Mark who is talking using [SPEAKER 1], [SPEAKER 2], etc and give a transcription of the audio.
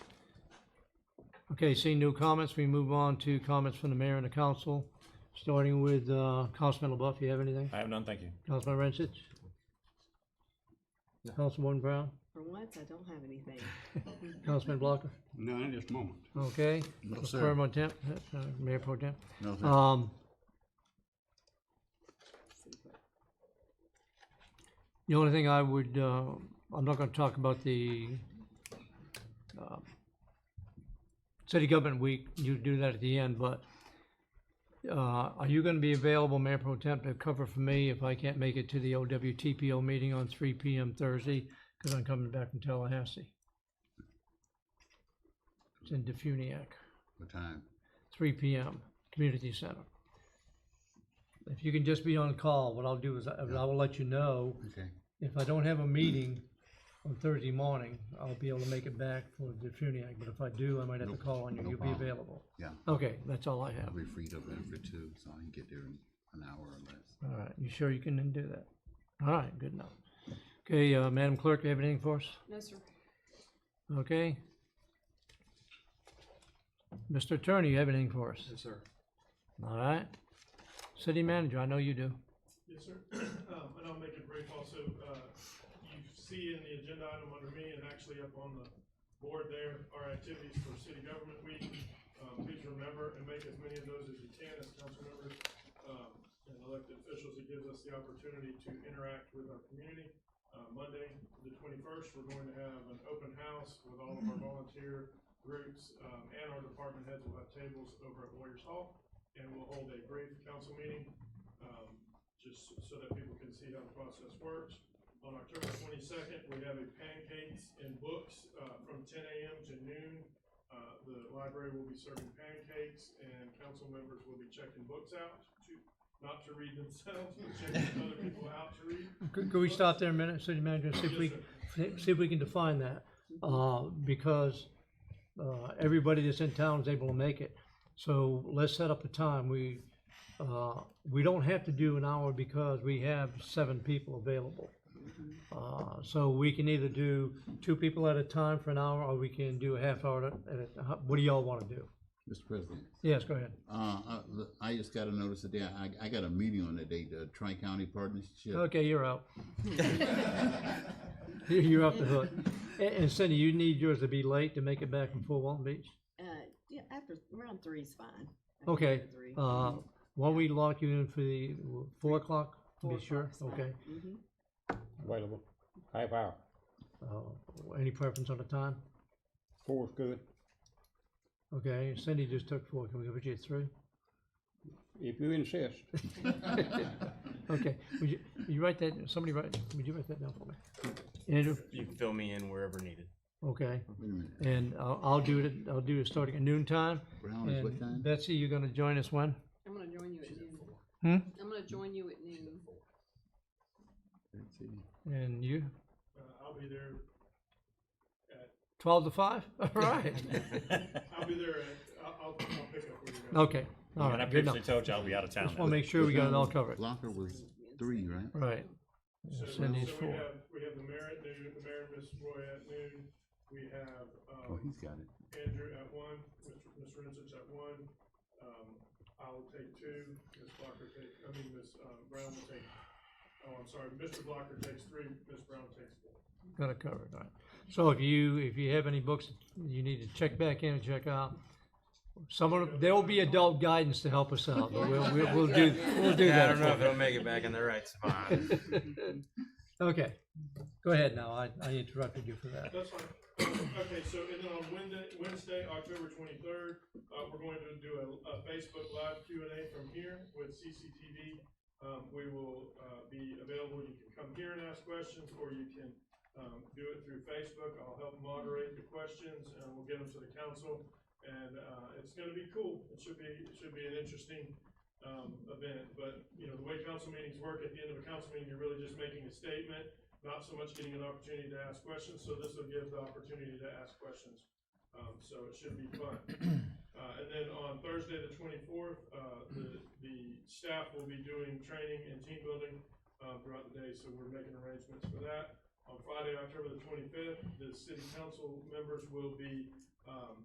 [SPEAKER 1] Okay, seeing no comments, we move on to comments from the mayor and the council, starting with uh, Councilman LaBeouf. Do you have anything?
[SPEAKER 2] I have none, thank you.
[SPEAKER 1] Councilman Rancich? Councilwoman Brown?
[SPEAKER 3] For once, I don't have anything.
[SPEAKER 1] Councilman Blocker?
[SPEAKER 4] None at this moment.
[SPEAKER 1] Okay.
[SPEAKER 5] No,
[SPEAKER 1] Mr.
[SPEAKER 5] sir.
[SPEAKER 1] Mayor Pro Tem- uh, uh, Mayor Pro Tem?
[SPEAKER 5] No, thank you.
[SPEAKER 1] Um, The only thing I would, uh, I'm not gonna talk about the, uh, City Government Week, you do that at the end, but, uh, are you gonna be available, Mayor Pro Temp, to cover for me if I can't make it to the OWTPO meeting on three PM Thursday? Cause I'm coming back from Tallahassee. It's in Defuniak
[SPEAKER 5] What time?
[SPEAKER 1] three PM, community center. If you can just be on call, what I'll do is I I will let you know,
[SPEAKER 5] Okay,
[SPEAKER 1] if I don't have a meeting on Thursday morning, I'll be able to make it back for the Funiac, but if I do, I might have to
[SPEAKER 5] Nope,
[SPEAKER 1] call on you,
[SPEAKER 5] no
[SPEAKER 1] you'll be
[SPEAKER 5] problem.
[SPEAKER 1] available.
[SPEAKER 5] yeah,
[SPEAKER 1] Okay, that's all I
[SPEAKER 5] I'll
[SPEAKER 1] have.
[SPEAKER 5] be free November two, so I can get there in an hour or less.
[SPEAKER 1] All right, you sure you can do that? All right, good enough. Okay, uh, Madam Clerk, you have anything for us?
[SPEAKER 3] No, sir.
[SPEAKER 1] Okay? Mr. Attorney, you have anything for us?
[SPEAKER 6] Yes, sir.
[SPEAKER 1] All right? City Manager, I know you do.
[SPEAKER 7] Yes, sir. Um, And I'll make it brief also. Uh, You see in the agenda item under me and actually up on the board there, our activities for City Government Week. Um, Please remember and make as many of those as you can as council members um, and elected officials. It gives us the opportunity to interact with our community. Uh, Monday, the twenty-first, we're going to have an open house with all of our volunteer groups um, and our department heads will have tables over at Warriors Hall. And we'll hold a brief council meeting um, just so that people can see how the process works. On October twenty-second, we have a pancakes and books, uh, from ten AM to noon. Uh, the library will be serving pancakes and council members will be checking books out to, not to read themselves, but checking other people out to read.
[SPEAKER 1] Could, could we stop there a minute, city manager, see if we, see if we can define that? Uh, because, uh, everybody that's in town is able to make it. So let's set up a time. We, uh, we don't have to do an hour because we have seven people available. Uh, so we can either do two people at a time for an hour, or we can do a half hour at a, what do y'all wanna do?
[SPEAKER 5] Mr. President,
[SPEAKER 1] Yes, go ahead.
[SPEAKER 5] uh, I, look, I just got a notice today, I, I got a meeting on that day, the Tri-County Partnership.
[SPEAKER 1] Okay, you're out. You're you're off the hook. And- And Cindy, you need yours to be late to make it back from Fort Walton Beach?
[SPEAKER 3] Uh, yeah, after, round three is fine. I think
[SPEAKER 1] Okay,
[SPEAKER 3] after three.
[SPEAKER 1] uh, why don't we lock you in for the four o'clock? to
[SPEAKER 3] Four
[SPEAKER 1] Be sure,
[SPEAKER 3] o'clock's fine.
[SPEAKER 1] okay.
[SPEAKER 3] Mhm.
[SPEAKER 2] Available. Half hour.
[SPEAKER 1] Uh, Any preference on the time?
[SPEAKER 2] Four's good,
[SPEAKER 1] Okay, Cindy just took four, can we give it you at three?
[SPEAKER 2] if you insist.
[SPEAKER 1] Okay, would you, you write that, somebody write, would you write that down for me? Andrew,
[SPEAKER 8] You can fill me in wherever needed.
[SPEAKER 1] okay,
[SPEAKER 5] Wait a minute,
[SPEAKER 1] and I'll, I'll do it, I'll do it starting at noon time.
[SPEAKER 5] Brown is what
[SPEAKER 1] And
[SPEAKER 5] time?
[SPEAKER 1] Betsy, you're gonna join us when?
[SPEAKER 3] I'm gonna join you at noon.
[SPEAKER 1] Hmm?
[SPEAKER 3] I'm gonna join you at noon.
[SPEAKER 5] Let's see.
[SPEAKER 1] And you?
[SPEAKER 7] Uh, I'll be there,
[SPEAKER 1] Twelve to five? All right.
[SPEAKER 7] I'll be there, at- I'll, I'll I'll pick up where you're going.
[SPEAKER 1] Okay, all
[SPEAKER 2] And I
[SPEAKER 1] right, good enough.
[SPEAKER 2] previously told you I'll be out of town.
[SPEAKER 1] Just wanna make sure we got it all covered.
[SPEAKER 5] Blocker was three, right?
[SPEAKER 1] Right.
[SPEAKER 7] So so we
[SPEAKER 1] Cindy's
[SPEAKER 7] have,
[SPEAKER 1] four.
[SPEAKER 7] we have the mayor at noon, the mayor and Ms. Roy at noon. We have,
[SPEAKER 5] Oh,
[SPEAKER 7] um,
[SPEAKER 5] he's got it.
[SPEAKER 7] Andrew at one, Mr. Ms. Rensich at one, um, I'll take two, Ms. Blocker take, I mean, Ms. uh, Brown will take, oh, I'm sorry, Mr. Blocker takes three, Ms. Brown takes four.
[SPEAKER 1] Got it covered, all right. So if you, if you have any books you need to check back in and check out, someone, there will be adult guidance to help us out, but we'll, we'll, we'll do, we'll do
[SPEAKER 8] Yeah,
[SPEAKER 1] that.
[SPEAKER 8] I don't know
[SPEAKER 1] for
[SPEAKER 8] if it'll make it back in the right spot.
[SPEAKER 1] you. Okay, go ahead now, I, I interrupted you for that.
[SPEAKER 7] That's fine. Okay, so, and then on Wednesday, Wednesday, October twenty-third, uh, we're going to do a, a Facebook Live Q and A from here with CCTV. Um, we will, uh, be available, you can come here and ask questions, or you can, um, do it through Facebook. I'll help moderate the questions, and we'll get them to the council, and, uh, it's gonna be cool. It should be, it should be an interesting, um, event, but, you know, the way council meetings work, at the end of a council meeting, you're really just making a statement, not so much getting an opportunity to ask questions, so this will give the opportunity to ask questions. Um, so it should be fun. Uh, and then on Thursday, the twenty-fourth, uh, the, the staff will be doing training and team building, uh, throughout the day, so we're making arrangements for that. On Friday, October the twenty-fifth, the city council members will be um,